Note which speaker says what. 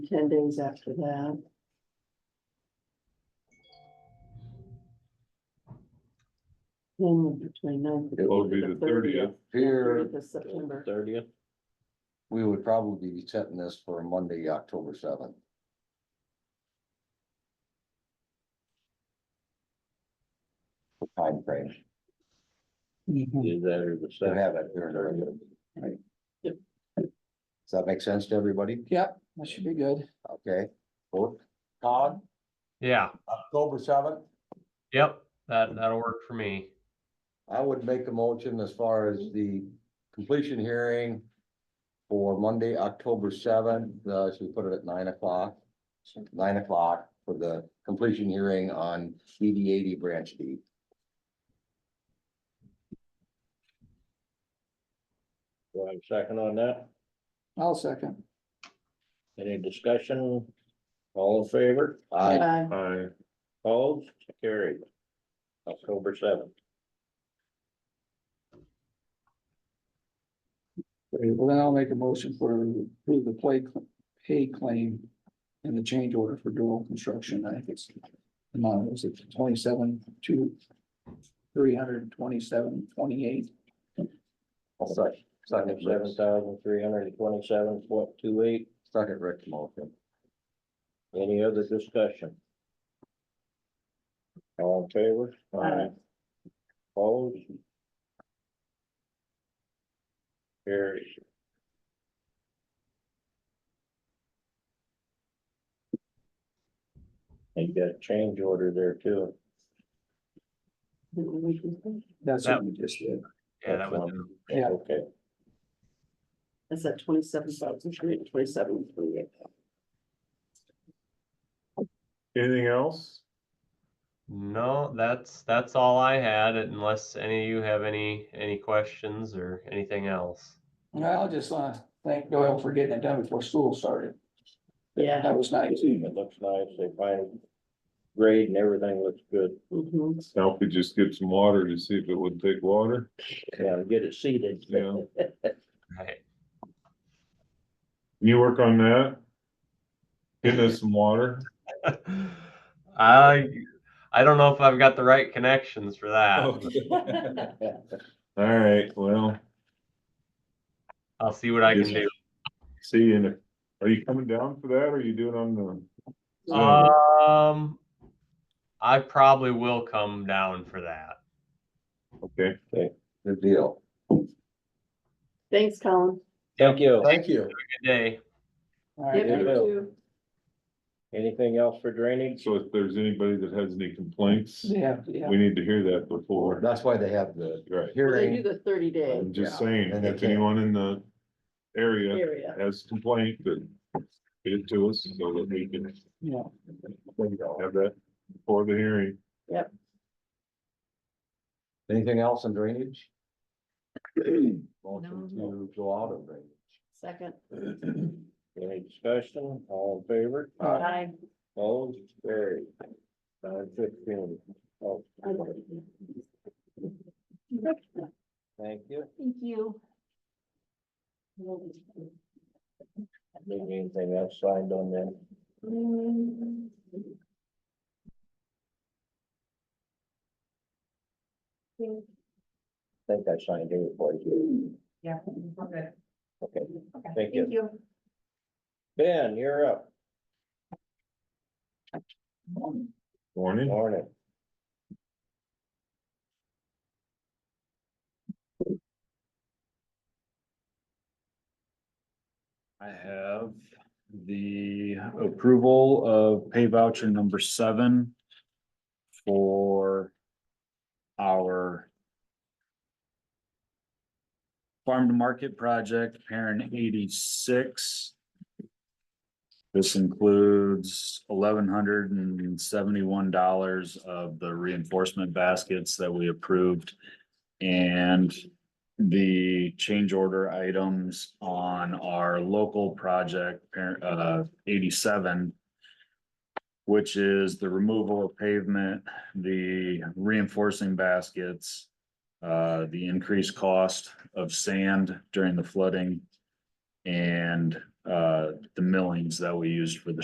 Speaker 1: ten days after that. Then between ninth.
Speaker 2: It would be the 30th.
Speaker 3: Here,
Speaker 1: Thirtieth of September.
Speaker 4: Thirtieth,
Speaker 3: we would probably be setting this for Monday, October seventh. Time frame
Speaker 4: is that or the
Speaker 3: to
Speaker 4: second?
Speaker 3: Hmm. have it here and earlier. Does that make sense to everybody?
Speaker 5: Yep, that should be good.
Speaker 3: Okay, Vote. Todd,
Speaker 6: Yeah,
Speaker 3: October seventh?
Speaker 6: yep, that, that'll work for me.
Speaker 3: I would make a motion as far as the completion hearing for Monday, October seventh, uh, should we put it at nine o'clock? Nine o'clock for the completion hearing on DD eighty branch D.
Speaker 4: Do I have a second on that?
Speaker 5: I'll second.
Speaker 4: Any discussion? All in favor?
Speaker 3: I,
Speaker 1: Bye.
Speaker 2: I,
Speaker 4: Opposed? Carried. October seventh.
Speaker 5: Great, Well, then I'll make a motion for approve the play, pay claim and the change order for dual construction. I think it's the amount was it twenty-seven, two, three hundred and twenty-seven, twenty-eight.
Speaker 3: second, second,
Speaker 4: Seven
Speaker 3: Rick's-
Speaker 4: thousand three hundred and twenty-seven point two eight.
Speaker 3: second Rick's motion.
Speaker 4: Any other discussion? All in favor?
Speaker 1: Aye.
Speaker 4: Opposed? Carried. And you got a change order there too.
Speaker 1: Didn't we just do-
Speaker 5: That's what we just did.
Speaker 6: Yeah, that was,
Speaker 5: Yeah.
Speaker 4: Okay.
Speaker 1: That's at twenty-seven thousand three, twenty-seven, three.
Speaker 2: anything else?
Speaker 6: no, that's, that's all I had unless any of you have any, any questions or anything else.
Speaker 5: And I'll just, uh, thank Doyle for getting it done before school started.
Speaker 1: Yeah.
Speaker 5: That was nice.
Speaker 4: It looks nice. They find grade and everything looks good.
Speaker 1: Mm-hmm.
Speaker 2: Now if we just get some water to see if it would take water.
Speaker 4: Yeah, get it seated.
Speaker 2: Yeah.
Speaker 6: Right.
Speaker 2: Can you work on that? Getting us some water?
Speaker 6: I, I don't know if I've got the right connections for that.
Speaker 2: Okay.
Speaker 1: Mm-hmm.
Speaker 2: All right, well,
Speaker 6: I'll see what I can do.
Speaker 2: see you in a, are you coming down for that or are you doing on the? Zoom?
Speaker 6: Um, I probably will come down for that.
Speaker 2: Okay,
Speaker 3: Good deal.
Speaker 1: Thanks, Colin.
Speaker 4: Thank you.
Speaker 3: Thank you.
Speaker 6: Good day.
Speaker 5: All
Speaker 1: Yep,
Speaker 5: right,
Speaker 4: you
Speaker 1: you
Speaker 4: will.
Speaker 1: too.
Speaker 4: Anything else for drainage?
Speaker 2: so if there's anybody that has any complaints,
Speaker 5: Yeah, yeah.
Speaker 2: we need to hear that before.
Speaker 3: That's why they have the
Speaker 1: They
Speaker 2: Right,
Speaker 1: do
Speaker 3: hearing.
Speaker 1: the thirty day
Speaker 2: I'm just
Speaker 3: Yeah,
Speaker 2: saying,
Speaker 3: and they
Speaker 2: if
Speaker 3: can't-
Speaker 2: anyone in the area
Speaker 1: area.
Speaker 2: has complaint, then get it to us so that we can
Speaker 5: Yeah.
Speaker 2: have that before the hearing.
Speaker 3: Anything else in drainage? Motion to go out of drainage.
Speaker 1: Second.
Speaker 4: Any discussion? All in favor?
Speaker 1: Bye.
Speaker 4: Opposed? Carried. Nine fifteen. Oh, thank you.
Speaker 1: Thank you.
Speaker 4: Maybe anything else signed on them? I think I signed it for you.
Speaker 7: Yeah, we're good.
Speaker 4: Okay,
Speaker 7: Okay,
Speaker 4: Thank
Speaker 7: thank
Speaker 4: you.
Speaker 7: you.
Speaker 4: Ben, you're up.
Speaker 2: Morning.
Speaker 4: Morning.
Speaker 8: I have the approval of pay voucher number seven for our farm to market project, parent eighty-six. This includes eleven hundred and seventy-one dollars of the reinforcement baskets that we approved and the change order items on our local project, par- uh, eighty-seven, which is the removal of pavement, the reinforcing baskets, uh, the increased cost of sand during the flooding, and uh, the millings that we used for the